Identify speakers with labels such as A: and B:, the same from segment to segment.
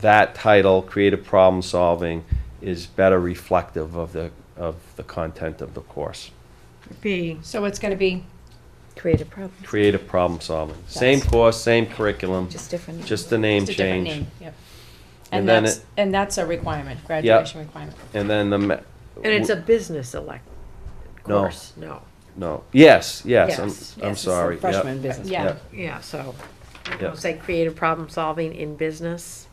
A: that title, creative problem solving, is better reflective of the, of the content of the course.
B: B.
C: So it's gonna be,
D: Creative problem,
A: Creative problem solving, same
D: Yes.
A: course, same curriculum,
D: just different.
A: just the name
C: it's a different
A: change.
C: name, yep.
A: And
C: And
A: then
C: that's,
A: it-
C: and that's a requirement, graduation requirement.
A: And then the. ma-
E: And it's a business elect
A: No.
E: course, no.
A: No, yes, yes, I'm,
E: Yes,
A: I'm
E: yes, it's a
A: sorry, yep.
F: Freshman business.
C: Yeah,
A: Yep.
E: Yeah, so,
A: Yep.
E: say creative problem solving in business.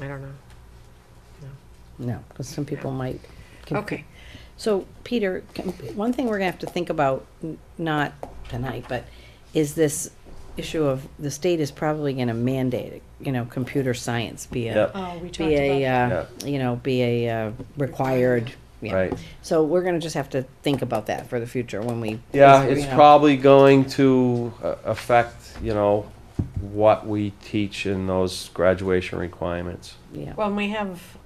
E: I don't know.
F: No, because some people might. confu-
E: Okay.
F: So, Peter, can- one thing we're gonna have to think about, n- not tonight, but is this issue of, the state is probably gonna mandate, it, you know, computer science be
A: Yep.
F: a,
C: oh, we talked
F: be a,
C: about,
F: uh, you know, be a uh, required. yeah.
A: Right.
F: So we're gonna just have to think about that for the future when we.
A: Yeah,
F: you
A: it's
F: know.
A: probably going to uh, affect, you know, what we teach in those graduation requirements.
F: Yeah.
E: Well, and we have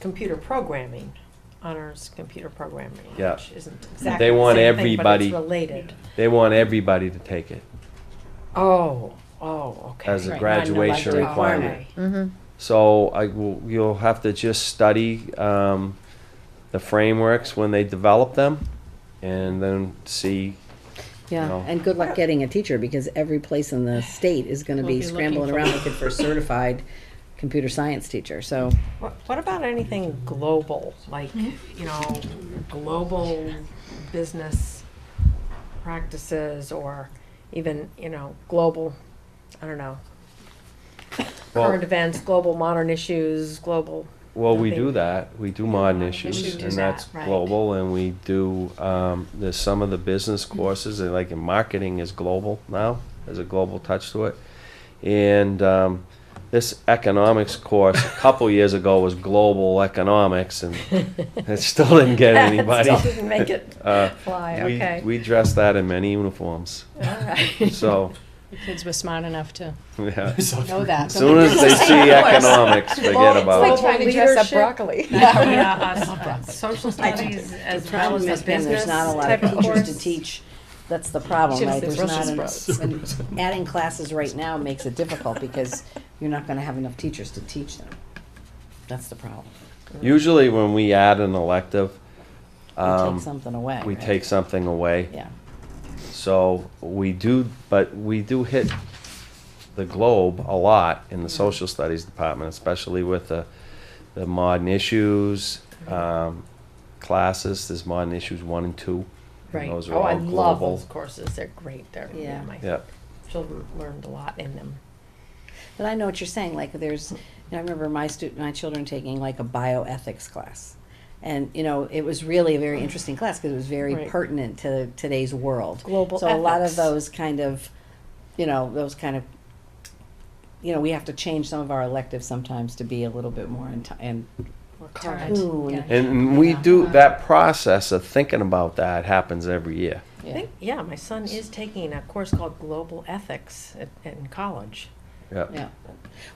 E: computer programming, honors computer programming,
A: Yeah.
E: which isn't exactly
A: They
E: the
A: want
E: same thing, but
A: everybody-
E: it's related.
A: They want everybody to take it
E: Oh, oh, okay.
A: as a
C: Right,
A: graduation
C: non-elective.
A: requirement.
D: hmm
A: So I will, you'll have to just study, um, the frameworks when they develop them and then see,
F: Yeah,
A: No.
F: and good luck getting a teacher because every place in the state is gonna
C: Will
F: be
C: be looking
F: scrambling
C: for-
F: around looking for a certified computer science teacher, so.
E: What, what about anything global, like,
C: Hmm?
E: you know, global business practices or even, you know, global, I don't know,
A: well,
E: current events, global modern issues, global,
A: well, we
E: nothing.
A: do that. We do modern issues
E: should do
A: and
E: that,
A: that's
E: right.
A: global and we do, um, there's some of the business
E: Mm-hmm.
A: courses and like in marketing is global now. There's a global touch to it. And, um, this economics course a couple years ago was global economics and it still didn't get anybody.
E: Still didn't make it
A: Uh,
E: fly,
A: we,
E: okay.
A: we dress that in many uniforms. So,
C: the kids were smart enough to
A: yeah. as
C: know that. so
A: soon
C: they-
A: as they see economics, forget about
C: like
A: it.
C: trying to dress up
E: broccoli.
B: Social studies as well
F: problem
B: as
F: has
B: the
F: been
B: business
F: there's not a lot
B: type
F: of
B: of
F: teachers to
B: course.
F: teach. That's the problem,
E: Should've
F: right?
E: said
F: There's
E: Russian
F: not, en- and adding classes right now makes it difficult because you're not gonna have enough teachers to teach them. That's the problem.
A: Usually when we add an elective,
F: We
A: um,
F: take something away,
A: we
F: right?
A: take something away.
F: Yeah,
A: So we do, but we do hit the globe a lot in the social studies department, especially with the, the modern issues, um, classes, there's modern issues one and two. and
E: Right.
A: Those are
E: Oh, I
A: all
E: love
A: global.
E: those courses. They're great. They're,
F: Yeah.
E: yeah, my
A: Yeah.
E: children learned a lot in them.
F: but I know what you're saying, like, there's, you know, I remember my student, my children taking like a bioethics class. And, you know, it was really a very interesting class because it was very
E: Right.
F: pertinent to today's world.
E: Global
F: So a lot of
E: ethics.
F: those kind of, you know, those kind of, you know, we have to change some of our electives sometimes to be a little bit more in, ti- and
E: Or
C: Current,
F: Ooh,
C: yeah.
A: And we do, that process of thinking about that happens every year.
E: I think, yeah, my son is taking a course called Global Ethics at, in college.
A: Yeah.
F: Yeah.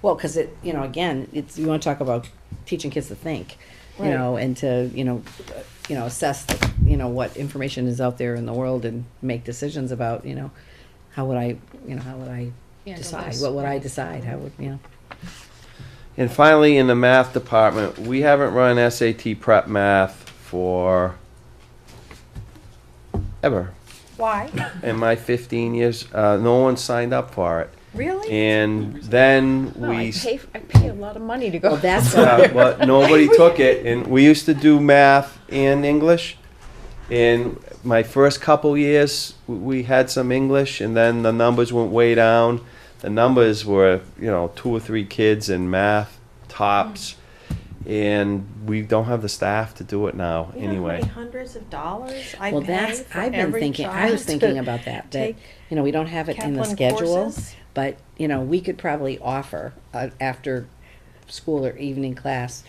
F: Well, because it, you know, again, it's, you want to talk about teaching kids to think, you
E: Right.
F: know, and to, you know, uh, you know, assess, the, you know, what information is out there in the world and make decisions about, you know, how would I, you know, how would I
C: Handle
F: decide?
C: this.
F: What would I decide? How would, you know?
A: And finally, in the math department, we haven't run SAT prep math for ever
E: Why?
A: in my 15 years. Uh, no one signed up for it.
E: Really?
A: And then
C: No, I
A: we
C: pay, f- I pay a lot of money to go.
F: Well, that's,
A: yeah, but nobody took it. And we used to do math and English. And my first couple years, w- we had some English, and then the numbers went way down. The numbers were, you know, two or three kids in math tops, and we don't have the staff to do it now.
E: You know how
A: anyway,
E: many hundreds of dollars I
F: well,
E: pay
F: that's,
E: for
F: I've been
E: every
F: thinking, I
E: child
F: was thinking
E: to
F: about that, that,
E: take
F: you know, we don't have it in the
E: Kaplan
F: schedule.
E: courses?
F: But, you know, we could probably offer, uh, after school or evening class,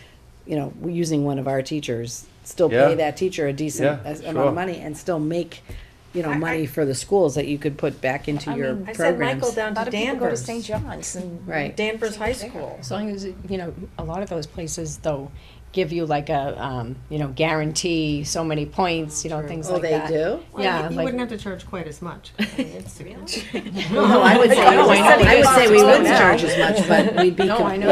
F: you know, we're using one of our teachers, still
A: Yeah.
F: pay that teacher a decent
A: Yeah,
F: as- amount
A: sure.
F: of money and still make, you know,
E: I-
F: money for the schools that you could put back into
D: I
F: your
D: mean,
E: I sent Michael
F: programs.
E: down
D: A lot
E: to
D: of people go to
E: Danvers.
D: St. John's and
F: Right,
E: Danvers High School.
C: As long as, you know, a lot of those places though give you like a, um, you know, guarantee so many points, you know, things like that.
F: Oh, do?
E: Oh, Well,
C: Yeah,
E: you, you
C: like-
E: wouldn't have to charge quite as much. I mean, it's-
F: No, I would say,
C: I know, I know.
F: I would say we
C: Well,
F: wouldn't
C: no.
F: charge as much, but we'd be.
C: No, I
F: com-
C: know.